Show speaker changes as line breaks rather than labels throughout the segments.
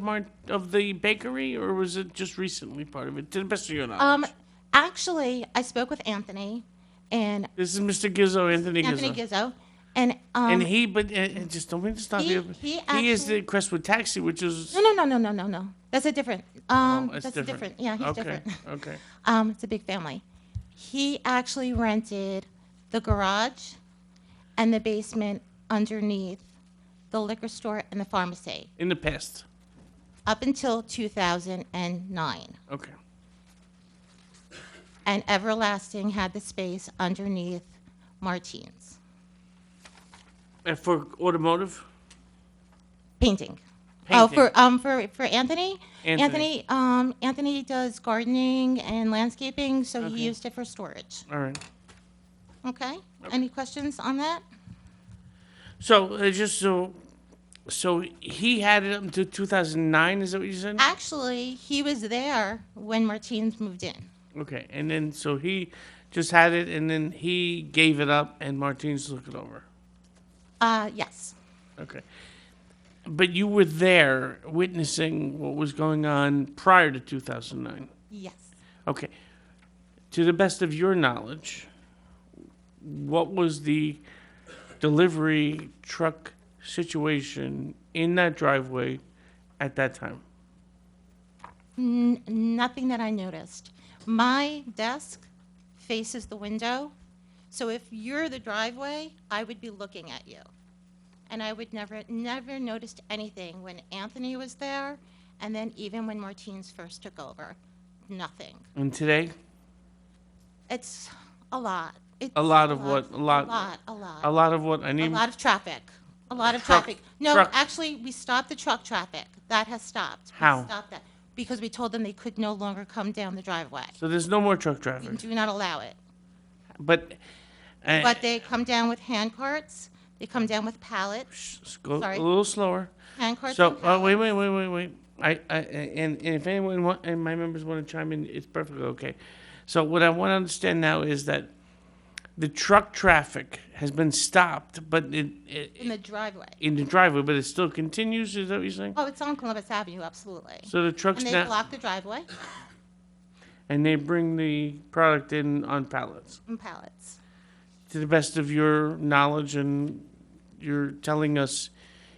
Mart of the bakery, or was it just recently part of it? To the best of your knowledge.
Um, actually, I spoke with Anthony and
this is Mr. Gizzo, Anthony,
Anthony
Gizzo.
Gizzo, and
and
um,
he, but uh, uh, just don't mean to stop
He-
you.
he
is
actually-
the Crestwood Taxi, which is
no, no, no, no, no, no, no. That's a different. Um,
oh, it's
that's a
different.
different. Yeah, he's
okay.
different.
Okay.
Um, it's a big family. He actually rented the garage and the basement underneath the liquor store and the pharmacy
In the past.
up until 2009.
Okay.
And Everlasting had the space underneath Martine's
And for automotive,
painting. Oh,
Painting.
for um for for Anthony.
Anthony.
um Anthony does gardening and landscaping, so he used it for storage.
all right.
Okay. Any questions on that?
So uh, just so, so he had it up until 2009. Is that what you
Uh,
said?
Actually, he was there when Martine's moved in.
Okay. And then so he just had it, and then he gave it up, and Martinez took it over.
Uh, yes.
Okay. But you were there witnessing what was going on prior to 2009.
Yes.
Okay. To the best of your knowledge, what was the delivery truck situation in that driveway at that time?
N- nothing that I noticed. My desk faces the window, so if you're the driveway, I would be looking at you. And I would never, never noticed anything when Anthony was there, and then even when Martine's first took over. Nothing.
And today,
It's a lot. It's
A lot of what? A lot-
A lot, a lot.
a lot of what I
A
need.
lot of traffic. A lot of
Truck-
traffic. No,
truck-
actually, we stopped the truck traffic. That has stopped. We
How?
stopped that because we told them they could no longer come down the driveway.
So there's no more truck
We
traffic.
do not allow it.
But, uh,
But they come down with hand carts. They come down with pallets,
sh- sh- go
sorry.
a little slower.
hand carts.
So
and
uh, wait,
pallets.
wait, wait, wait, wait. I, I and, and if anyone want, and my members want to chime in, it's perfectly okay. So what I want to understand now is that the truck traffic has been stopped, but it, it
in the driveway.
in the driveway, but it still continues. Is that what you're saying?
Oh, it's on Columbus Avenue, absolutely.
So the trucks
And they
now,
block the driveway
and they bring the product in on pallets.
and pallets.
To the best of your knowledge, and you're telling us,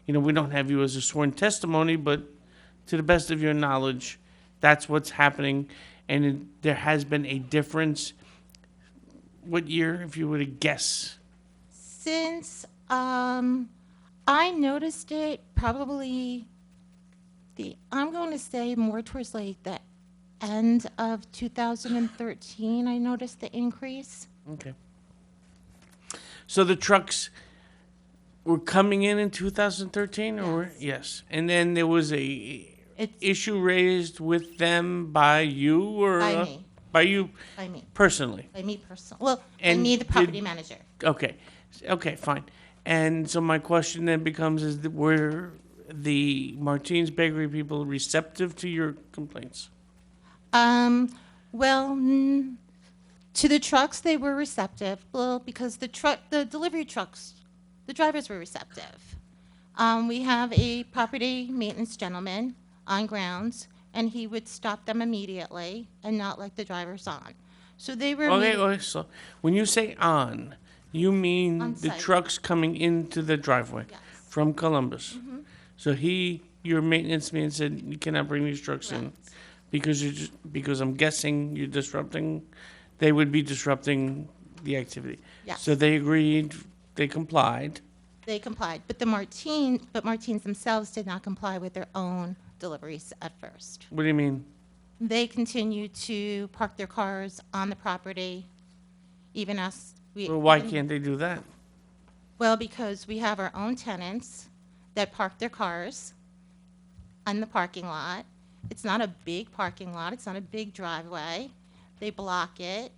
you know, we don't have you as a sworn testimony, but to the best of your knowledge, that's what's happening, and it, there has been a difference. What year, if you were to guess?
Since um, I noticed it, probably the I'm going to say more towards like the end of 2013. I noticed the increase.
Okay. So the trucks were coming in in 2013, or were- yes, and then there was a
It's
issue raised with them by you or
By
uh,
me.
by you
by me,
personally.
by me personally. Well,
And
by me, the
did-
property manager.
Okay, S- okay, fine. And so my question then becomes: Is that were the Martins Bakery people receptive to your complaints?
Um, well, mm, to the trucks, they were receptive. Well, because the truck, the delivery trucks, the drivers were receptive. Um, we have a property maintenance gentleman on grounds, and he would stop them immediately and not let the drivers on. So they were.
Okay,
imme-
okay. So when you say on, you mean
On
the
site.
trucks coming into the driveway
Yes. Mm-hmm.
from Columbus. So he, your maintenance man, said you cannot bring these trucks in
Correct.
because you just because I'm guessing you're disrupting. They would be disrupting the activity.
Yes.
So they agreed. They complied.
They complied, but the Martine, but Martines themselves did not comply with their own deliveries at first.
What do you mean?
they continue to park their cars on the property, even us. we-
Well, why can't they do that?
Well, because we have our own tenants that park their cars on the parking lot. It's not a big parking lot, it's not a big driveway. They block it,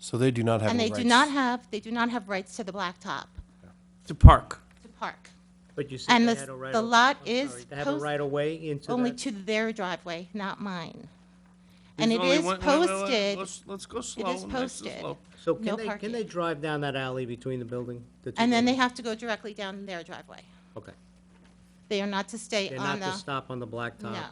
So they do not have
and
any
they
rights.
do not have, they do not have rights to the blacktop
To park.
to park.
But you said
And
they
the-
had a right.
the
of-
lot
I'm
is
sorry, They have a
post-
right of way into that?
Only to their driveway, not mine.
There's
And it
only
is
one- wait, wait, wait,
posted,
Let's, let's go slow. nice and
posted.
slow.
So
no
can they,
parking.
can they drive down that alley between the building? the two
and then they
buildings?
have to go directly down their driveway.
Okay. They are not to stay
They're not
on the.
to stop on the blacktop?
No.